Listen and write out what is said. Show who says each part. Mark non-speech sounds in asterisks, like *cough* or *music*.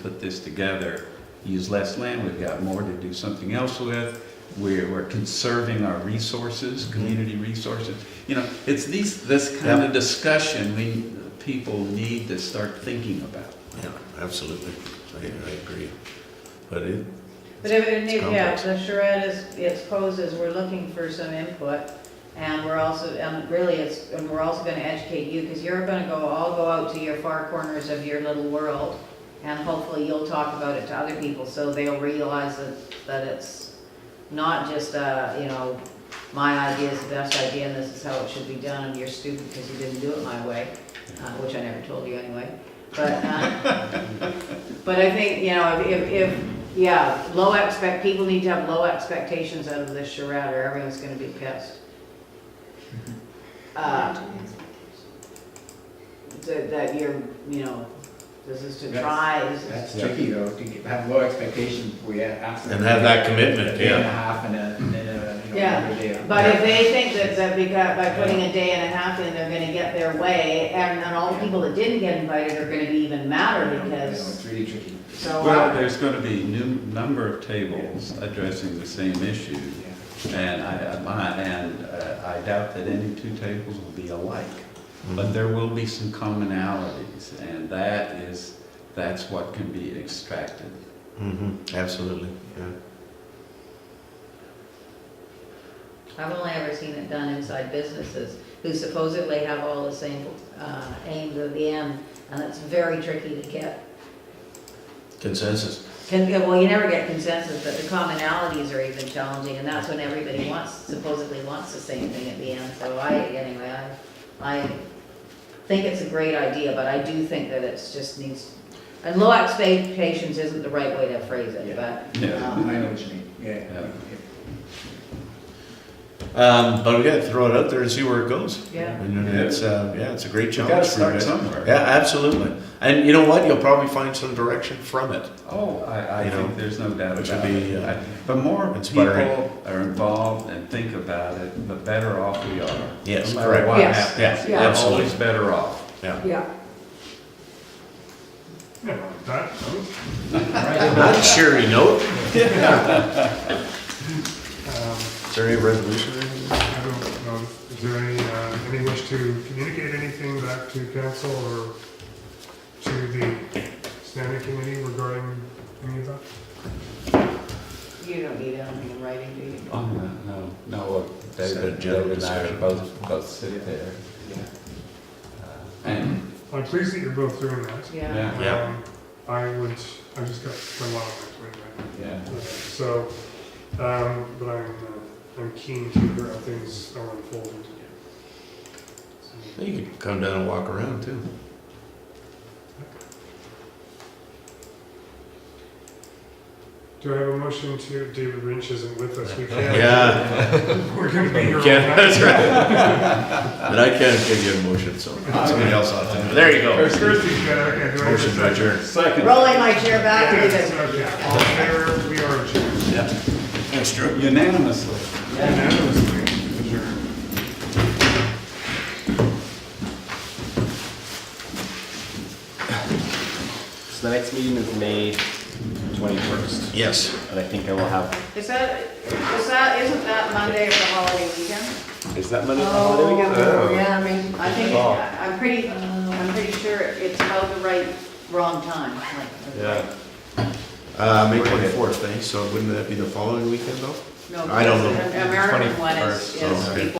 Speaker 1: put this together, use less land, we've got more to do something else with. We're, we're conserving our resources, community resources. You know, it's these, this kind of discussion we, people need to start thinking about.
Speaker 2: Yeah, absolutely. I, I agree. But it,
Speaker 3: But if, and
Speaker 2: It's
Speaker 3: if- yeah,
Speaker 2: complex.
Speaker 3: the charrette is, it's posed as we're looking for some input, and we're also, and really, it's, and we're also gonna educate you, because you're gonna go, all go out to your far corners of your little world, and hopefully you'll talk about it to other people, so they'll realize that, that it's not just, uh, you know, my idea is the best idea, and this is how it should be done, and you're stupid because you didn't do it my way, uh, which I never told you anyway, but, uh, *laughs* but I think, you know, if- if, if, yeah, low expect, people need to have low expectations out of this charrette or everyone's gonna be pissed. Uh, That that you're, you know, this is to try, this is-
Speaker 4: That's tricky though, to get- have low expectations before you ask. them
Speaker 2: and
Speaker 4: to
Speaker 2: have
Speaker 4: get
Speaker 2: that
Speaker 4: A
Speaker 2: commitment,
Speaker 4: day and a
Speaker 2: yeah.
Speaker 4: half and a, and a, you know,
Speaker 3: Yeah,
Speaker 4: whatever day.
Speaker 3: But if they think that, that because, by putting a day and a half in, they're gonna get their way, and then all the people that didn't get invited are gonna be even madder
Speaker 4: You know,
Speaker 3: because,
Speaker 4: It's really tricky.
Speaker 3: so.
Speaker 1: Well, there's going to be new number of tables addressing the same issue, and I, I- and uh, I doubt that any two tables will be alike, but there will be some commonalities, and that is, that's what can be extracted.
Speaker 2: hmm absolutely, yeah.
Speaker 3: I've only ever seen it done inside businesses who supposedly have all the same uh, aims at the end, and it's very tricky to get.
Speaker 2: Consensus.
Speaker 3: can- Well, you never get consensus, but the commonalities are even challenging, and that's when everybody wants, supposedly wants the same thing at the end. So I, anyway, I, I think it's a great idea, but I do think that it's just needs, and low expectations isn't the right way to phrase it, but.
Speaker 1: Yeah.
Speaker 4: Um, I know what you mean, yeah.
Speaker 1: Yeah.
Speaker 2: Um, but we gotta throw it out there and see where it goes.
Speaker 3: Yeah.
Speaker 2: And it's, uh, yeah, it's a great
Speaker 1: You
Speaker 2: challenge.
Speaker 1: gotta
Speaker 2: for
Speaker 1: start
Speaker 2: you.
Speaker 1: somewhere.
Speaker 2: Yeah, absolutely. And you know what? You'll probably find some direction from it.
Speaker 1: Oh, I, I
Speaker 2: You know,
Speaker 1: think there's no doubt
Speaker 2: which
Speaker 1: about
Speaker 2: would be,
Speaker 1: it.
Speaker 2: uh,
Speaker 1: I- The more
Speaker 2: inspiring.
Speaker 1: people are involved and think about it, the better off we are.
Speaker 2: Yes,
Speaker 1: No matter
Speaker 2: correct.
Speaker 1: what
Speaker 3: Yes,
Speaker 1: happens.
Speaker 2: yes,
Speaker 1: We're
Speaker 2: absolutely.
Speaker 1: Always better off.
Speaker 2: Yeah.
Speaker 3: Yeah.
Speaker 5: Yeah, that,
Speaker 2: Not a cheery note.
Speaker 5: um,
Speaker 2: Is there any resolution or anything?
Speaker 5: I don't know, is there any, uh, any wish to communicate anything back to council or to the standing committee regarding any of that?
Speaker 3: You don't need anything in writing, do you?
Speaker 1: Oh, no, no, no, uh,
Speaker 2: Just a
Speaker 1: David,
Speaker 2: general
Speaker 1: David and I
Speaker 2: discussion.
Speaker 1: are both, both sit there. Uh, And,
Speaker 5: I'm pleased that you're both doing that.
Speaker 3: Yeah.
Speaker 2: Yeah.
Speaker 5: Um, I would, I just got my law right now.
Speaker 1: yeah.
Speaker 5: So, um, but I'm, uh, I'm keen to hear how things are unfolding. So,
Speaker 2: You could come down and walk around too.
Speaker 5: Do I have a motion to, David Lynch isn't with us, we can't.
Speaker 2: Yeah.
Speaker 5: *laughs* We're gonna be here all
Speaker 2: Yeah, *laughs*
Speaker 5: night.
Speaker 2: that's right. But I can't give you a motion, so somebody else ought to. There you go.
Speaker 5: There's Thursday, yeah, okay, do I have a
Speaker 2: Motion to
Speaker 5: second?
Speaker 2: adjourn.
Speaker 1: Second.
Speaker 3: Rolling my chair back, leave it.
Speaker 5: Okay, All in favor, we are adjourned.
Speaker 2: Thanks, Drew.
Speaker 1: Unanimously.
Speaker 5: Unanimously adjourned.
Speaker 6: So the next meeting is May 21st,
Speaker 2: Yes.
Speaker 6: and I think I will have.
Speaker 3: Is that, is that, isn't that Monday of the holiday weekend?
Speaker 6: Is that Monday?
Speaker 3: Oh, yeah, I mean, I think, it-
Speaker 6: Oh.
Speaker 3: I'm pretty, I'm pretty sure it's about the right, wrong time, like.
Speaker 2: Yeah. Uh, May twenty-fourth, eh? So wouldn't that be the following weekend though?
Speaker 3: No,
Speaker 2: I don't know.
Speaker 3: because the American one is,
Speaker 6: 21st,
Speaker 3: is
Speaker 2: okay.